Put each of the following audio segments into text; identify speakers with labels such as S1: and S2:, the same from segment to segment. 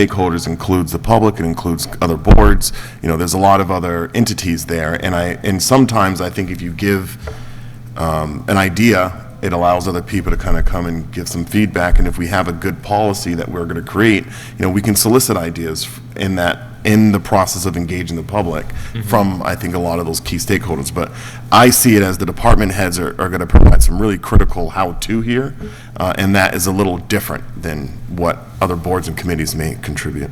S1: stakeholders includes the public, it includes other boards, you know, there's a lot of other entities there, and I, and sometimes I think if you give um, an idea, it allows other people to kind of come and give some feedback, and if we have a good policy that we're going to create, you know, we can solicit ideas in that, in the process of engaging the public from, I think, a lot of those key stakeholders. But I see it as the department heads are, are going to provide some really critical how-to here, uh, and that is a little different than what other boards and committees may contribute.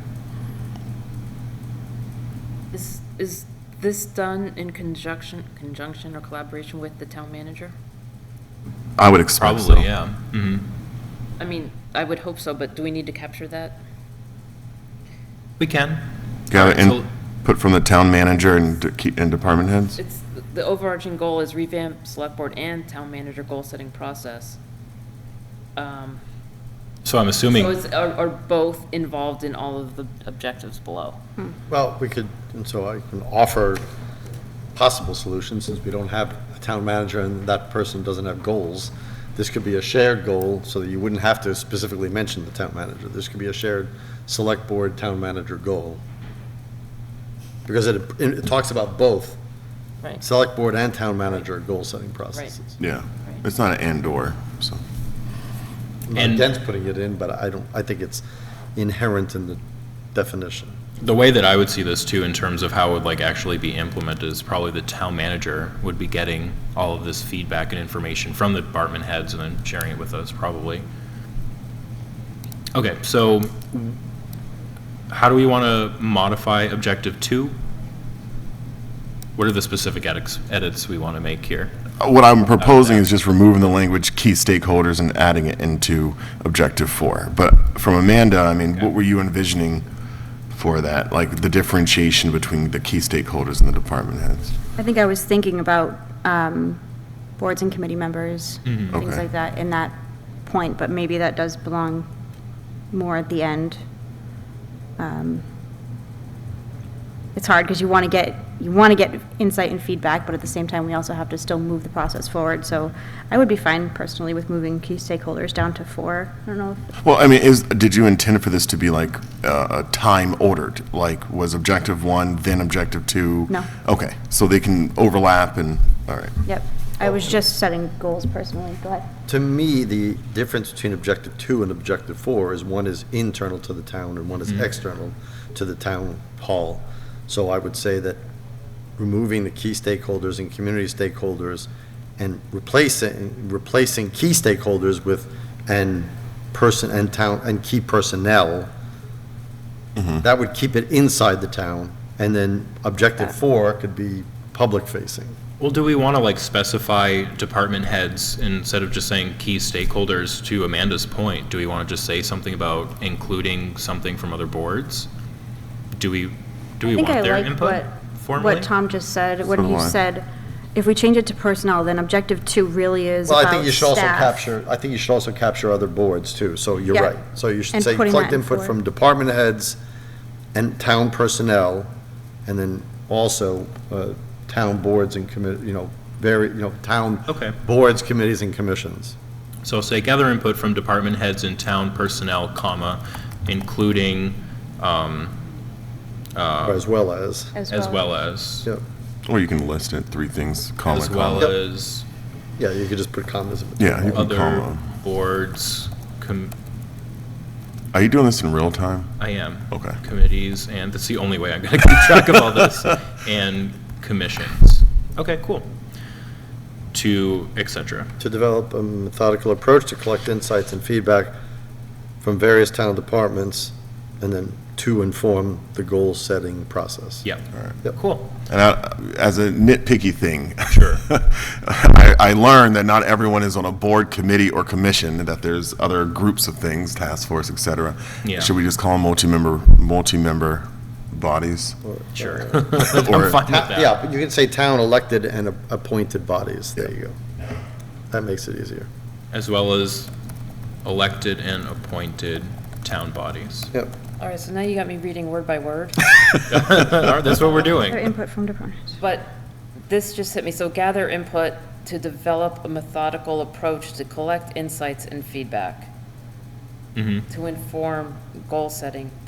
S2: Is, is this done in conjunction, conjunction or collaboration with the town manager?
S1: I would expect so.
S3: Probably, yeah. hmm
S2: I mean, I would hope so, but do we need to capture that?
S3: We can.
S1: Gather
S3: Alright, so-
S1: input from the town manager and, de- key- and department heads?
S2: It's, the overarching goal is revamp select board and town manager goal-setting process. Um,
S3: So I'm
S2: So
S3: assuming,
S2: is, are, are both involved in all of the objectives below?
S4: Well, we could, and so I can offer possible solutions, since we don't have a town manager and that person doesn't have goals. This could be a shared goal, so that you wouldn't have to specifically mention the town manager. This could be a shared select board, town manager goal. Because it, it talks about both,
S2: Right.
S4: select board and town manager goal-setting processes.
S1: Yeah, it's not an and/or, so.
S4: I'm not
S3: And-
S4: against putting it in, but I don't, I think it's inherent in the definition.
S3: the way that I would see this too, in terms of how it would like actually be implemented, is probably the town manager would be getting all of this feedback and information from the department heads and then sharing it with us, probably. Okay, so how do we want to modify objective two? What are the specific edits, edits we want to make here?
S1: What I'm proposing is just removing the language "key stakeholders" and adding it into objective four. But from Amanda, I mean, what were you envisioning for that? Like the differentiation between the key stakeholders and the department heads?
S5: I think I was thinking about um, boards and committee members,
S3: Mm-hmm.
S5: things
S1: Okay.
S5: like that, in that point, but maybe that does belong more at the end. Um, It's hard, because you want to get, you want to get insight and feedback, but at the same time, we also have to still move the process forward, so I would be fine personally with moving key stakeholders down to four. I don't know, if-
S1: Well, I mean, is, did you intend for this to be like uh, time ordered? Like, was objective one, then objective two?
S5: No.
S1: Okay, so they can overlap and, all right.
S5: yep,
S3: Oh.
S5: I was just setting goals personally, go ahead.
S4: To me, the difference between objective two and objective four is one is internal to the town and one is external to the town hall. So I would say that removing the key stakeholders and community stakeholders and replacing, replacing key stakeholders with and person and town and key personnel, that would keep it inside the town. And then objective four could be public facing.
S3: Well, do we want to like specify department heads instead of just saying key stakeholders to Amanda's point? Do we want to just say something about including something from other boards? Do we, do we
S5: I think I
S3: want their
S5: like
S3: input
S5: what,
S3: formally?
S5: what Tom just said,
S1: So
S5: when
S1: do
S5: he
S1: I.
S5: said, if we change it to personnel, then objective two really is
S4: Well,
S5: about
S4: I think you should also
S5: staff.
S4: capture, I think you should also capture other boards too, so you're
S5: Yeah.
S4: right. So you should
S5: And
S4: say
S5: putting
S4: collect
S5: that in
S4: input
S5: for-
S4: from department heads and town personnel, and then also uh, town boards and committee, you know, very, you know, town
S3: Okay.
S4: boards, committees, and commissions.
S3: So say gather input from department heads and town personnel, comma, including Uh.
S4: As well as,
S3: as well as,
S4: yeah,
S1: Or you can list it, three things, comma,
S3: as well
S1: comma.
S3: as
S4: yeah, you could just put commas.
S1: Yeah, you can
S3: other
S1: comma.
S3: boards, com,
S1: Are you doing this in real time?
S3: I am.
S1: Okay.
S3: Committees, and that's the only way I'm gonna keep track of all this, and commissions. Okay, cool. To et cetera.
S4: to develop a methodical approach to collect insights and feedback from various town departments, and then to inform the goal-setting process.
S3: Yeah.
S4: Yep.
S3: Cool.
S1: And I, as a nitpicky thing.
S3: Sure.
S1: I, I learned that not everyone is on a board, committee, or commission, that there's other groups of things, task force, et cetera.
S3: Yeah.
S1: Should we just call them multi-member, multi-member bodies?
S3: Sure.
S4: uh,
S3: I'm
S1: Or-
S3: fine with
S4: Ta-
S3: that.
S4: Yeah, but you can say town elected and a- appointed bodies, there you go. That makes it easier.
S3: As well as elected and appointed town bodies.
S4: Yep.
S2: All right, so now you got me reading word by word,
S3: That's what we're
S5: Or
S3: doing.
S5: input from departments.
S2: but this just hit me. So gather input to develop a methodical approach to collect insights and feedback,
S3: Mhm.
S2: to inform goal-setting